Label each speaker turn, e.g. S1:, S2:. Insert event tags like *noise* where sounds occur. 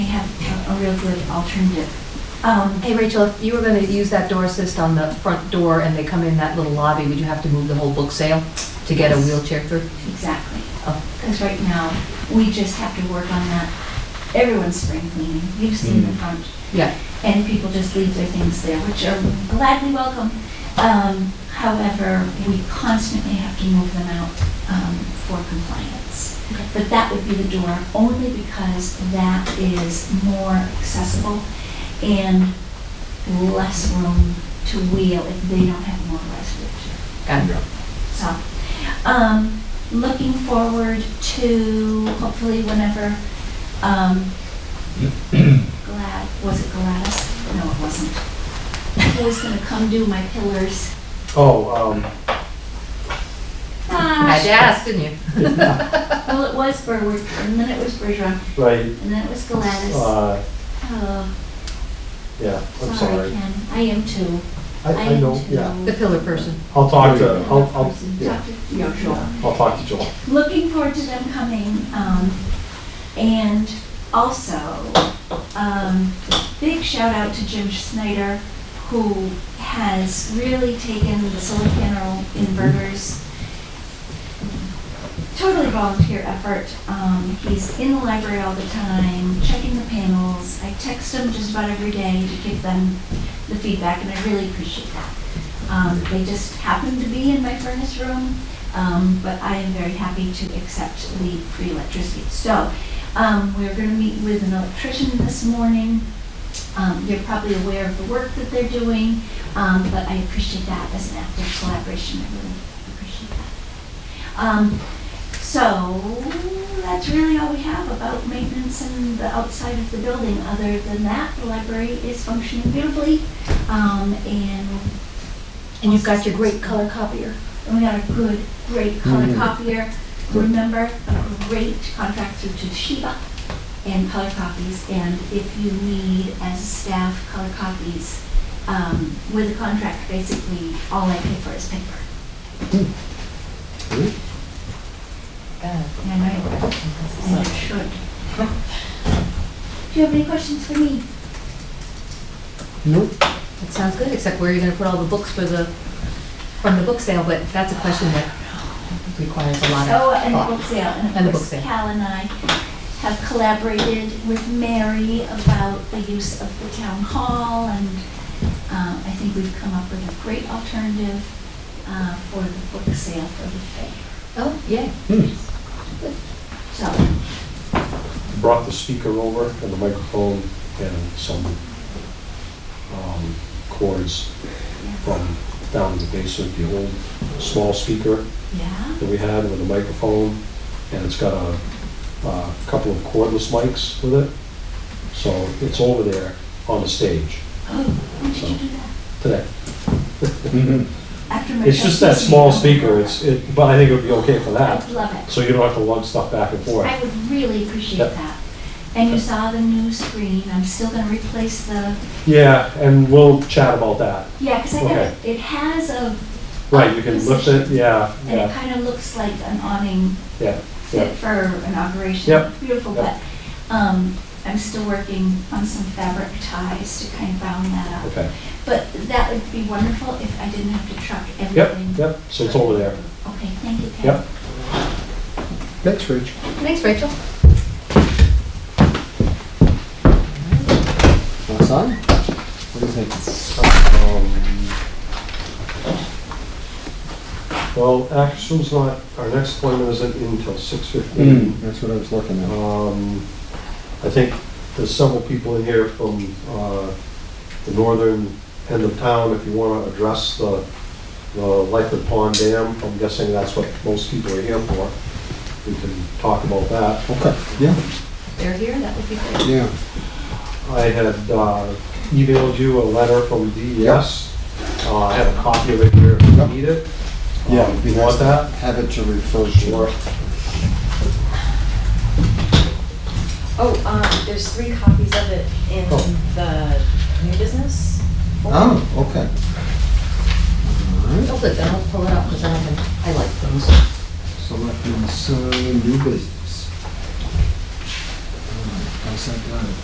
S1: have a real good alternative. Um,
S2: Hey, Rachel, if you were going to use that door assist on the front door and they come in that little lobby, would you have to move the whole book sale to get a
S1: Yes.
S2: wheelchair through?
S1: Exactly.
S2: Oh.
S1: Because right now, we just have to work on that. Everyone's spring cleaning, you've seen the front,
S2: Yeah,
S1: and people just leave their things there, which are gladly welcome. Um, However, we constantly have to move them out um, for compliance.
S2: Okay.
S1: But that would be the door, only because that is more accessible and less room to wheel if they don't have a motorized wheelchair.
S2: got it.
S1: So, um, looking forward to hopefully whenever, um,
S3: *clears throat*
S1: Glad, was it Gladys? No, it wasn't. Who was gonna come do my pillars?
S3: Oh, um,
S2: I had to
S1: Gosh,
S2: ask, didn't you?
S1: well, it was Berwick, and then it was Bergeron,
S3: right,
S1: and then it was Gladys.
S3: uh,
S1: Oh,
S3: yeah, I'm
S1: sorry,
S3: sorry.
S1: Ken, I am too.
S3: I, I
S1: am
S3: know,
S1: too.
S3: yeah.
S2: The pillar person.
S3: I'll talk to, I'll, I'll,
S1: Person.
S3: yeah,
S1: Talk to- yeah, sure.
S3: I'll talk to Joel.
S1: looking forward to them coming. Um, and also, um, big shout out to Jim Snyder, who has really taken the silicon roll inverters. Totally volunteer effort. Um, he's in the library all the time, checking the panels. I text him just about every day to give them the feedback, and I really appreciate that. Um, they just happen to be in my furnace room, um, but I am very happy to accept the free electricity. So, um, we're gonna meet with an electrician this morning. Um, you're probably aware of the work that they're doing, um, but I appreciate that as an active collaboration, I really appreciate that. Um, so, that's really all we have about maintenance and the outside of the building. Other than that, the library is functioning beautifully, um, and
S2: And you've got your great color copier.
S1: and we got a good, great color
S3: Mhm.
S1: copier. Remember, a great contract through Toshiba and color copies. And if you need, as staff, color copies, um, with a contract, basically, all I pay for is paper.
S2: God,
S1: And I know, it- and it should. Do you have any questions for me?
S3: Nope.
S2: That sounds good, except where are you going to put all the books for the, from the book sale? But that's a question that requires a lot of
S1: Oh, and the
S2: thought.
S1: book sale,
S2: And
S1: and
S2: the
S1: of
S2: book
S1: course,
S2: sale.
S1: Cal and I have collaborated with Mary about the use of the town hall, and um, I think we've come up with a great alternative uh, for the book sale for the fair.
S2: Oh, yeah.
S1: So,
S3: Brought the speaker over and the microphone and some, um, cords
S1: yeah.
S3: from down in the basement, the old small speaker
S1: yeah,
S3: that we had with a microphone. And it's got a, a couple of cordless mics with it. So it's over there on the stage
S1: oh, when did you do that?
S3: today.
S1: After my
S3: It's just that
S1: trustees
S3: small
S1: meeting.
S3: speaker, it's, it, but I think it would be okay for that,
S1: I'd love it.
S3: so you don't have to lug stuff back and forth.
S1: I would really appreciate
S3: Yep.
S1: that. And you saw the new screen, I'm still gonna replace the,
S3: Yeah, and we'll chat about that.
S1: yeah, because I got,
S3: Okay.
S1: it It has a
S3: Right, you can lift it, yeah,
S1: And it
S3: yeah,
S1: kind of looks like an awning
S3: yeah,
S1: fit
S3: yeah.
S1: for inauguration.
S3: Yep.
S1: Beautiful, but
S3: Yep.
S1: um, I'm still working on some fabric ties to kind of round that up.
S3: Okay,
S1: But that would be wonderful if I didn't have to truck
S3: yep,
S1: everything.
S3: yep, so it's over there.
S1: Okay, thank you, Ken.
S3: Yep. Thanks, Rich.
S2: Thanks, Rachel.
S4: Want some? What do you think?
S3: Well, action's not, our next appointment isn't until six fifteen.
S4: That's what I was looking at.
S3: Um, I think there's several people in here from, uh, the northern end of town, if you wanna address the, the Lightfoot Pond Dam, I'm guessing that's what most people are here for. We can talk about that.
S4: Okay, yeah,
S2: They're here, that would be great.
S4: yeah.
S3: I had uh, emailed you a letter from DES. Uh, I have a copy of it here if you
S4: Yep.
S3: need it. Um,
S4: it'd be
S3: You
S4: nice
S3: want
S4: to
S3: that?
S4: Have it to refer
S3: Sure.
S4: to.
S5: Oh, um, there's three copies of it in
S3: Oh.
S5: the new business. folder.
S4: Oh, okay. All right,
S2: Hold it, then I'll pull it up because I don't think, I like those.
S4: selectmen's uh, new business. All right, How's that done?